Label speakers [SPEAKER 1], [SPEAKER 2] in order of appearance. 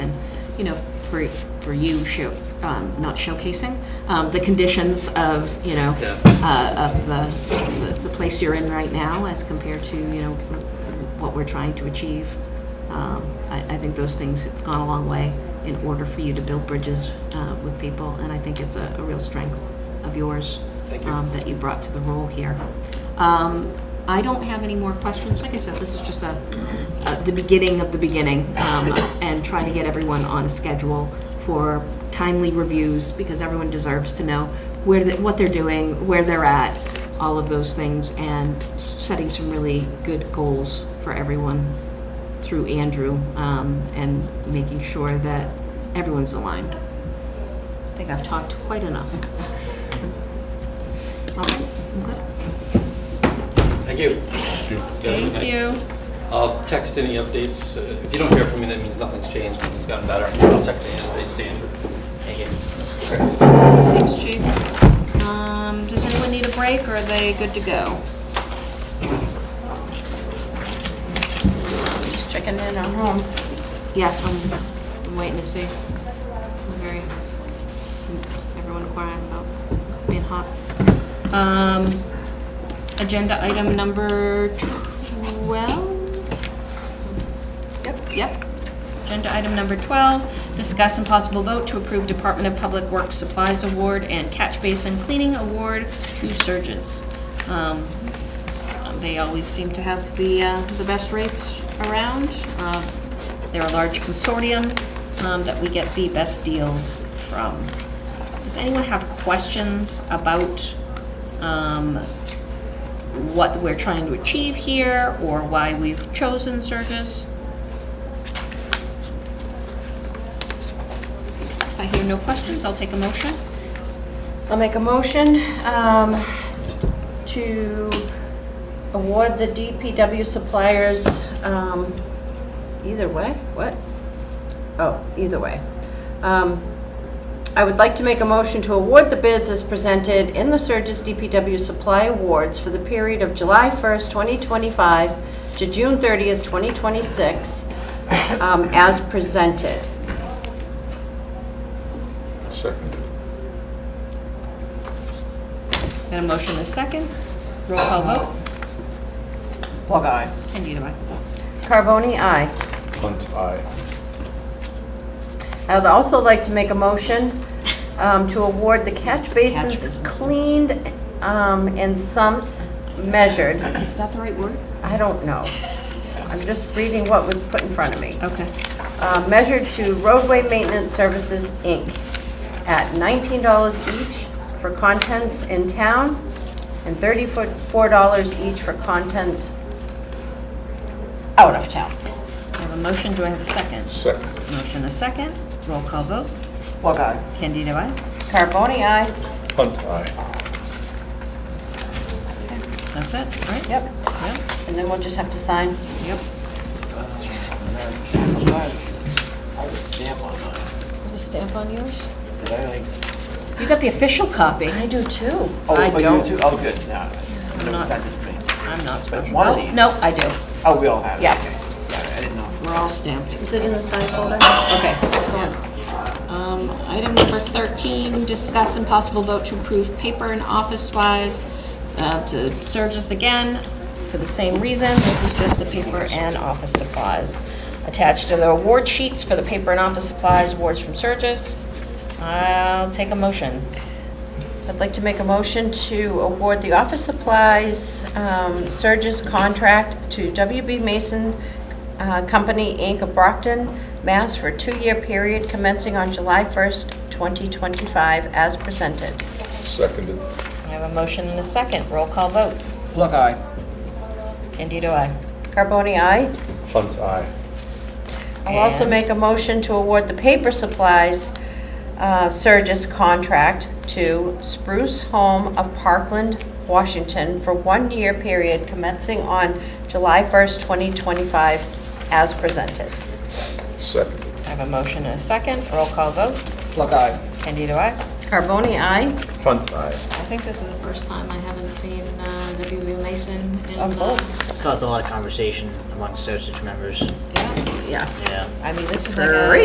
[SPEAKER 1] you know, for, for you, show, um, not showcasing, um, the conditions of, you know,
[SPEAKER 2] Yeah.
[SPEAKER 1] uh, of the, the- the place you're in right now as compared to, you know, what we're trying to achieve. Um, I, I think those things have gone a long way in order for you to build bridges, uh, with people, and I think it's a, a real strength of yours.
[SPEAKER 2] Thank you.
[SPEAKER 1] um, that you brought to the role here. Um, I don't have any more questions. Like I said, this is just a, a- the beginning of the beginning, um, and trying to get everyone on a schedule for timely reviews, because everyone deserves to know where, they- what they're doing, where they're at, all of those things, and s- setting some really good goals for everyone through Andrew, um, and making sure that everyone's aligned. I think I've talked quite enough. All right, I'm good.
[SPEAKER 2] Thank you.
[SPEAKER 1] Thank you.
[SPEAKER 2] I'll text any updates. Uh, If you don't hear from me, that means nothing's changed, nothing's gotten better. I'll text any updates to Andrew. Thank you.
[SPEAKER 1] Thanks, Chief. Um, does anyone need a break or are they good to go?
[SPEAKER 3] Just checking in on home.
[SPEAKER 1] Yeah, I'm, I'm waiting to see. I'm very, everyone quiet about being hot. Um, agenda item number twelve?
[SPEAKER 3] Yep.
[SPEAKER 1] Yep. Agenda item number 12, discuss and possible vote to approve Department of Public Works Supplies Award and Catch Basin Cleaning Award to Surges. Um, They always seem to have the, uh, the best rates around. Um, They're a large consortium um, that we get the best deals from. Does anyone have questions about um, what we're trying to achieve here or why we've chosen Surges? If I hear no questions, I'll take a motion.
[SPEAKER 3] I'll make a motion um, to award the DPW suppliers, um, either way, what? Oh, either way. Um, I would like to make a motion to award the bids as presented in the Surges DPW Supply Awards for the period of July 1st, 2025 to June 30th, 2026, um, as presented.
[SPEAKER 4] Second.
[SPEAKER 1] Got a motion and a second. Roll call vote.
[SPEAKER 5] Plug eye.
[SPEAKER 1] Candida, aye.
[SPEAKER 3] Carboni, aye.
[SPEAKER 4] Hunt eye.
[SPEAKER 3] I'd also like to make a motion um, to award the catch basins cleaned um, and sumps measured.
[SPEAKER 1] Is that the right word?
[SPEAKER 3] I don't know. I'm just reading what was put in front of me.
[SPEAKER 1] Okay.
[SPEAKER 3] Uh, Measured to roadway maintenance services, Inc. at $19 each for contents in town and $34 each for contents out of town.
[SPEAKER 1] I have a motion. Do I have a second?
[SPEAKER 4] Second.
[SPEAKER 1] Motion, a second. Roll call vote.
[SPEAKER 5] Plug eye.
[SPEAKER 1] Candida, aye.
[SPEAKER 3] Carboni, aye.
[SPEAKER 4] Hunt eye.
[SPEAKER 1] That's it, right?
[SPEAKER 3] Yep.
[SPEAKER 1] Yep.
[SPEAKER 3] And then we'll just have to sign.
[SPEAKER 1] Yep.
[SPEAKER 5] I would stamp on mine.
[SPEAKER 3] Have a stamp on yours?
[SPEAKER 5] Did I like?
[SPEAKER 1] You got the official copy.
[SPEAKER 3] I do too.
[SPEAKER 5] Oh,
[SPEAKER 1] I
[SPEAKER 5] oh, you
[SPEAKER 1] don't.
[SPEAKER 5] do? Oh, good. No, no,
[SPEAKER 1] not-
[SPEAKER 5] it's not just me.
[SPEAKER 1] I'm not special.
[SPEAKER 5] one of
[SPEAKER 1] Oh,
[SPEAKER 5] these-
[SPEAKER 1] No, I do.
[SPEAKER 5] Oh, we all have it.
[SPEAKER 1] Yeah.
[SPEAKER 5] okay. Yeah, I didn't know.
[SPEAKER 1] We're all stamped.
[SPEAKER 3] Is it in the sign folder?
[SPEAKER 1] Okay, excellent. Um, Item number 13, discuss and possible vote to approve paper and office supplies uh, to Surges again, for the same reason. This is just the paper and office supplies. Attached are the award sheets for the paper and office supplies awards from Surges. I'll take a motion.
[SPEAKER 3] I'd like to make a motion to award the office supplies um, Surges contract to WB Mason uh, Company, Inc. of Brockton, Mass. for a two-year period commencing on July 1st, 2025, as presented.
[SPEAKER 4] Seconded.
[SPEAKER 1] I have a motion and a second. Roll call vote.
[SPEAKER 5] Plug eye.
[SPEAKER 1] Candido, I.
[SPEAKER 3] Carboni, aye?
[SPEAKER 4] Hunt eye.
[SPEAKER 3] I'll also
[SPEAKER 1] And-
[SPEAKER 3] make a motion to award the paper supplies uh, Surges contract to Spruce Home of Parkland, Washington for one-year period commencing on July 1st, 2025, as presented.
[SPEAKER 4] Seconded.
[SPEAKER 1] I have a motion and a second. Roll call vote.
[SPEAKER 5] Plug eye.
[SPEAKER 1] Candido, I.
[SPEAKER 3] Carboni, aye?
[SPEAKER 4] Hunt eye.
[SPEAKER 6] I think this is the first time I haven't seen uh, W.B. Mason in.
[SPEAKER 3] Of both.
[SPEAKER 6] uh,
[SPEAKER 7] It's caused a lot of conversation among Sausage members.
[SPEAKER 6] Yeah.
[SPEAKER 3] Yeah.
[SPEAKER 7] Yeah.
[SPEAKER 1] I mean, this is
[SPEAKER 3] Great.